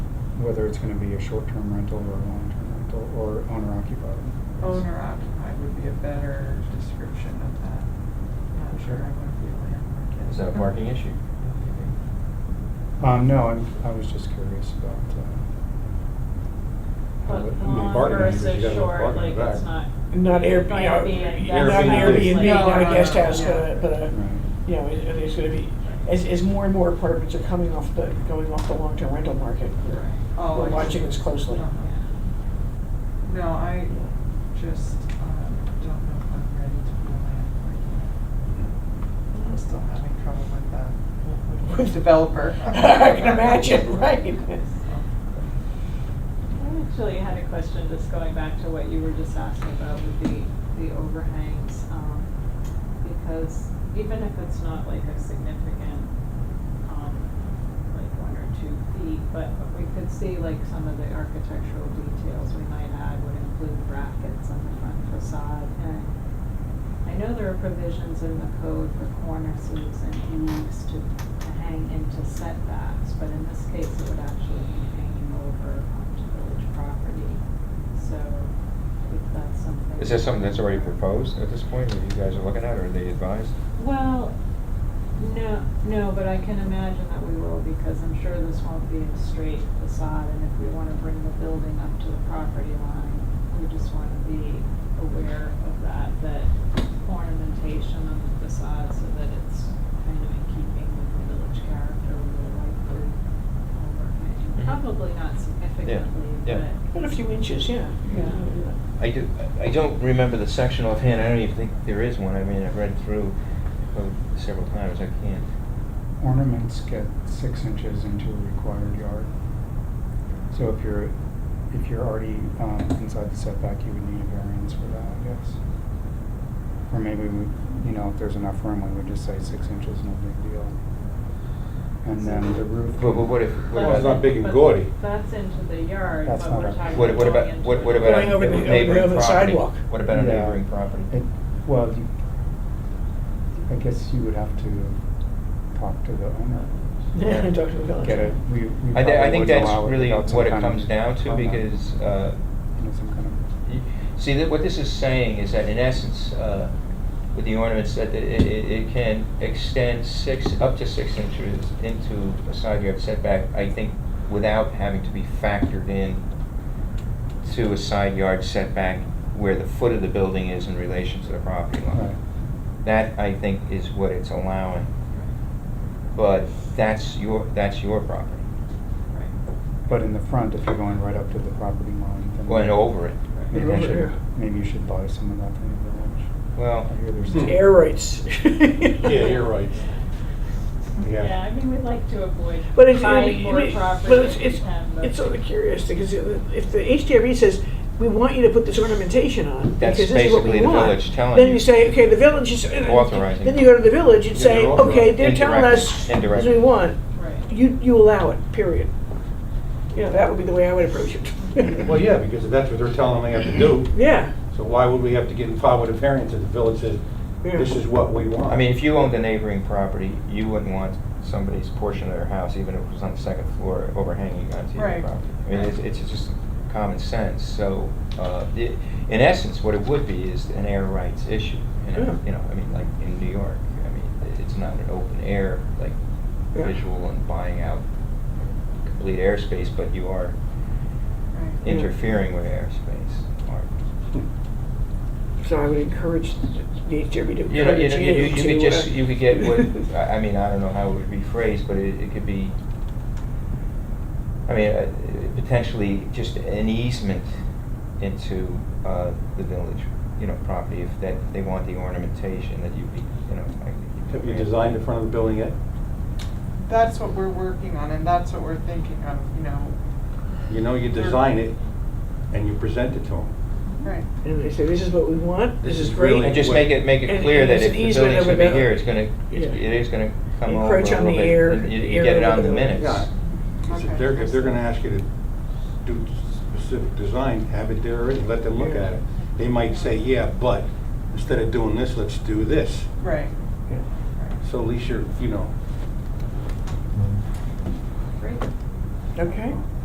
whether it's gonna be a short-term rental or a long-term rental or owner occupied. Owner occupied would be a better description of that. I'm not sure I want to be a landlord. Is that a parking issue? Um, no, I'm, I was just curious about, uh. how But it- long parking meters, you versus gotta have short, parking like back. it's not, Not Airbnb, Not not Airbnb, that's Airbnb, not not a like- guest house, Yeah. but a, but a, Right. you know, it- it's gonna be, as, as more and more apartments are coming off the, going off the long-term rental market, we're- Oh, I we're see. watching this closely. Uh-huh. No, I just um, don't know if I'm ready to be a landlord yet. I'm still having trouble with the, with the developer. I can imagine, right? I actually had a question, just going back to what you were just asking about with the, the overhangs. um, Because even if it's not like a significant, um, like one or two feet, but we could see like some of the architectural details we might add would include brackets on the front facade. And I know there are provisions in the code for cornices and eaves to, to hang into setbacks, but in this case, it would actually be hanging over onto village property. So if that's something. Is that something that's already proposed at this point, that you guys are looking at, or are they advised? Well, no, no, but I can imagine that we will, because I'm sure this won't be a straight facade, and if we wanna bring the building up to the property line, we just wanna be aware of that, that ornamentation on the facade, so that it's kind of in keeping with the village character, we would like the Mhm. overhang. Probably not significantly, Mm-hmm. yeah. but. But a few inches, yeah. Yeah. I do, I don't remember the section offhand, I don't even think there is one, I mean, I've read through the code several times, I can't. Ornaments get six inches into a required yard. So if you're, if you're already, um, inside the setback, you would need a variance for that, I guess. Or maybe we, you know, if there's enough room, we would just say six inches, no big deal. And then the roof. But, but what if, what Well, it's not about, big and but gaudy. That's into the yard, That's but not we're a- talking what, what going about, into what, the what Going about over a the- over the neighboring other property? sidewalk. What about a Yeah. neighboring property? It, well, you, I guess you would have to talk to the owner. Yeah, talk to the village. Get it, we, we probably I, thi- I wouldn't think that's allow it really without some what it kind of- comes down to, without, because, uh, You know, some kind of. You- See, that what this is saying is that in essence, uh, with the ornaments, that it, it, it can extend six, up to six inches into a side yard setback, I think, without having to be factored in to a side yard setback where the foot of the building is in relation to the property Right. line. That, I think, is what it's allowing. But that's your, that's your property, But in the front, if you're going right up to the property line, then. going over it. Maybe Over you should, here. maybe you should buy some of that from the village. Well, I hear there's. The Hmm. Air rights. Yeah, you're right. Yeah. Yeah, I mean, we like to avoid But it's, buying I more mean, but property it's, than we it's, can, but. it's sort of curious, because if the HDRB says, we want you to put this ornamentation on, That's because this is what basically we the want," village telling Then you. you say, okay, the village is. and- and Authorizing. Then you go to the village and Yeah, say, they're authorizing. okay, they're telling Indirectly. us, this is what Indirectly. we want, Right. you, you allow it, period. You know, that would be the way I would approach it. Well, yeah, because if that's what they're telling them they have to do, Yeah. so why would we have to get involved with a variance if the village says, yeah. this is what we want? I mean, if you owned a neighboring property, you wouldn't want somebody's portion of their house, even if it was on the second floor, overhanging onto your Right. property. I mean, it's, it's just common sense, so, uh, i- in essence, what it would be is an air rights issue. You Yeah. know, you know, I mean, like in New York, I mean, it's not an open air, like Yeah. visual and buying out complete airspace, but you are Right. Yeah. interfering with airspace. or- So I would encourage the HDRB to You know, you encourage know, you, you- you you to, could just, uh, you could get what, I I mean, I don't know how it would be phrased, but it, it could be, I mean, uh, potentially just an easement into, uh, the village, you know, property, if that, they want the ornamentation, that you'd be, you know, like. Have you designed the front of the building yet? That's what we're working on, and that's what we're thinking of, you know, You know, you design it and you present it to them. right. And they say, this is what we want, this This is is great. really And just make it, make And- it clear and that it's if an the easement building's over gonna be the- here, it's gonna, it's- Yeah. it is gonna come over a Encroach on little the bit, air- and You, you air get it over on the the minutes. Yeah. Because Okay. If they're, if they're gonna ask you to do specific design, have it there and let them look at it. They might say, yeah, but instead of doing this, let's do this. Right. Yeah. So at least you're, you know, Great. Okay.